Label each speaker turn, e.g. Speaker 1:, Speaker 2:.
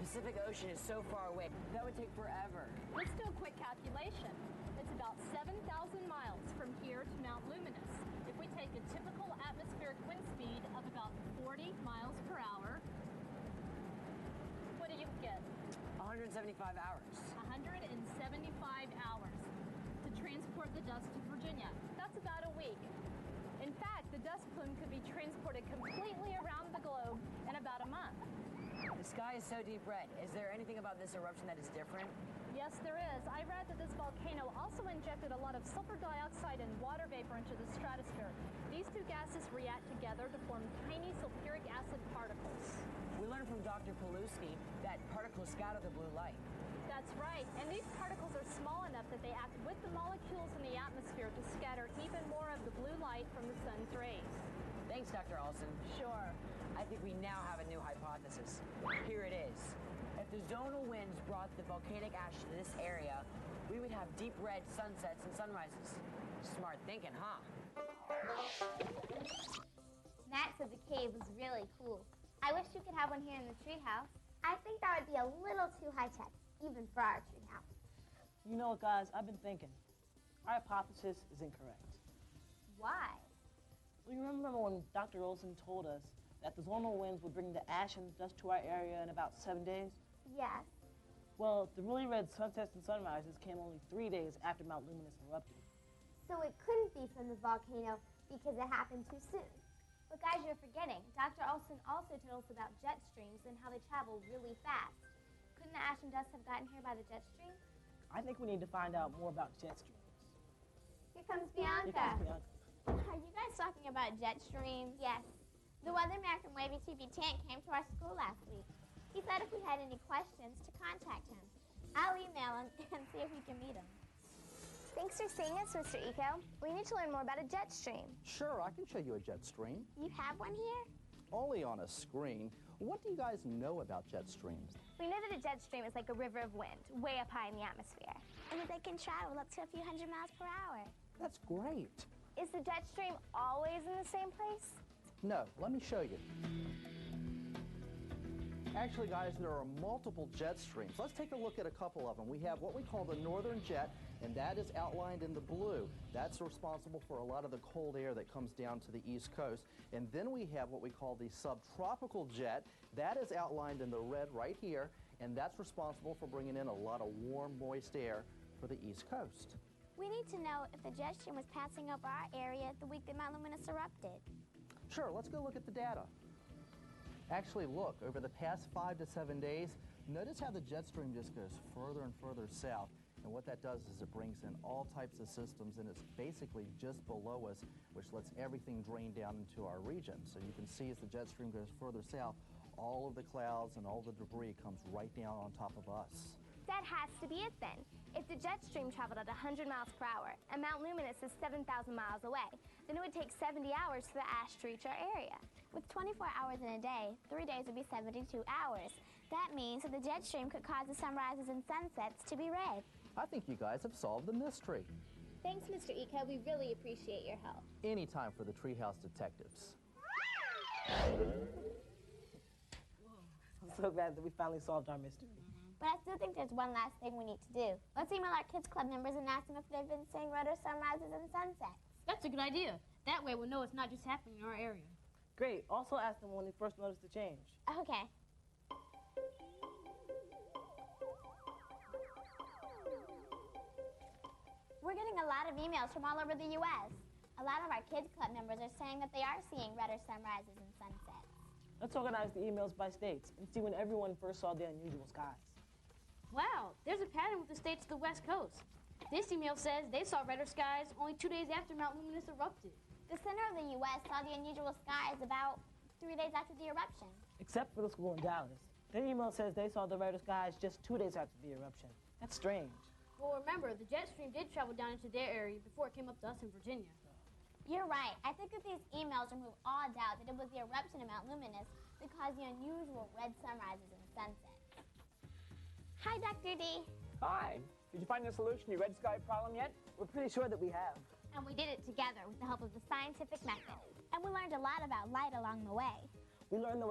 Speaker 1: Pacific Ocean is so far away. That would take forever.
Speaker 2: Let's do a quick calculation. It's about 7,000 miles from here to Mount Luminous. If we take a typical atmospheric wind speed of about 40 miles per hour, what do you get?
Speaker 1: 175 hours.
Speaker 2: 175 hours to transport the dust to Virginia. That's about a week. In fact, the dust plume could be transported completely around the globe in about a month.
Speaker 1: The sky is so deep red. Is there anything about this eruption that is different?
Speaker 2: Yes, there is. I read that this volcano also injected a lot of sulfur dioxide and water vapor into the stratosphere. These two gases react together to form tiny sulfuric acid particles.
Speaker 1: We learned from Dr. Paluski that particles scatter the blue light.
Speaker 2: That's right. And these particles are small enough that they act with the molecules in the atmosphere to scatter even more of the blue light from the sun's rays.
Speaker 1: Thanks, Dr. Olson.
Speaker 2: Sure.
Speaker 1: I think we now have a new hypothesis. Here it is. If the zonal winds brought the volcanic ash to this area, we would have deep red sunsets and sunrises. Smart thinking, huh?
Speaker 3: Matt said the cave was really cool. I wish you could have one here in the treehouse. I think that would be a little too high tech, even for our treehouse.
Speaker 4: You know what, guys? I've been thinking. Our hypothesis is incorrect.
Speaker 3: Why?
Speaker 4: We remember when Dr. Olson told us that the zonal winds would bring the ash and dust to our area in about seven days?
Speaker 3: Yes.
Speaker 4: Well, the really red sunsets and sunrises came only three days after Mount Luminous erupted.
Speaker 3: So it couldn't be from the volcano because it happened too soon. But guys, you're forgetting. Dr. Olson also told us about jet streams and how they travel really fast. Couldn't the ash and dust have gotten here by the jet stream?
Speaker 4: I think we need to find out more about jet streams.
Speaker 3: Here comes
Speaker 4: Here comes
Speaker 3: Bianca.
Speaker 4: Bianca.
Speaker 5: Are you guys talking about jet streams?
Speaker 3: Yes.
Speaker 5: The weatherman from Wavy TV Tent came to our school last week. He said if we had any questions to contact him. I'll email him and see if we can meet him.
Speaker 6: Thanks for seeing us, Mr. Eco. We need to learn more about a jet stream.
Speaker 7: Sure, I can show you a jet stream,
Speaker 5: You have one here?
Speaker 7: only on a screen. What do you guys know about jet streams?
Speaker 6: We know that a jet stream is like a river of wind, way up high in the atmosphere.
Speaker 5: And they can travel up to a few hundred miles per hour.
Speaker 7: That's great.
Speaker 6: Is the jet stream always in the same place?
Speaker 7: No, let me show you. Actually, guys, there are multiple jet streams. Let's take a look at a couple of them. We have what we call the northern jet, and that is outlined in the blue. That's responsible for a lot of the cold air that comes down to the east coast. And then we have what we call the subtropical jet. That is outlined in the red right here, and that's responsible for bringing in a lot of warm, moist air for the east coast.
Speaker 5: We need to know if the jet stream was passing over our area the week that Mount Luminous erupted.
Speaker 7: Sure, let's go look at the data. Actually, look, over the past five to seven days, notice how the jet stream just goes further and further south. And what that does is it brings in all types of systems, and it's basically just below us, which lets everything drain down into our region. So you can see as the jet stream goes further south, all of the clouds and all the debris comes right down on top of us.
Speaker 6: That has to be it then. If the jet stream traveled at 100 miles per hour and Mount Luminous is 7,000 miles away, then it would take 70 hours for the ash to reach our area.
Speaker 5: With 24 hours in a day, three days would be 72 hours. That means that the jet stream could cause the sunrises and sunsets to be red.
Speaker 7: I think you guys have solved the mystery.
Speaker 5: Thanks, Mr. Eco. We really appreciate your help.
Speaker 7: Any time for the treehouse detectives.
Speaker 4: I'm so glad that we finally solved our mystery.
Speaker 5: But I still think there's one last thing we need to do. Let's email our kids club members and ask them if they've been seeing red or sunrises and sunsets.
Speaker 2: That's a good idea. That way we'll know it's not just happening in our area.
Speaker 4: Great. Also ask them when they first noticed the change.
Speaker 5: Okay. We're getting a lot of emails from all over the U.S. A lot of our kids club members are saying that they are seeing redder sunrises and sunsets.
Speaker 4: Let's organize the emails by states and see when everyone first saw the unusual skies.
Speaker 8: Wow, there's a pattern with the states of the West Coast. This email says they saw redder skies only two days after Mount Luminous erupted.
Speaker 5: The center of the U.S. saw the unusual skies about three days after the eruption.
Speaker 4: Except for the school in Dallas. Their email says they saw the redder skies just two days after the eruption. That's strange.
Speaker 8: Well, remember, the jet stream did travel down into their area before it came up to us in Virginia.
Speaker 5: You're right. I think that these emails remove all doubt that it was the eruption of Mount Luminous that caused the unusual red sunrises and sunsets. Hi, Dr. D.
Speaker 9: Hi. Did you find the solution to your red sky problem yet?
Speaker 4: We're pretty sure that we have.
Speaker 5: And we did it together with the help of the scientific method. And we learned a lot about light along the way.
Speaker 4: We learned the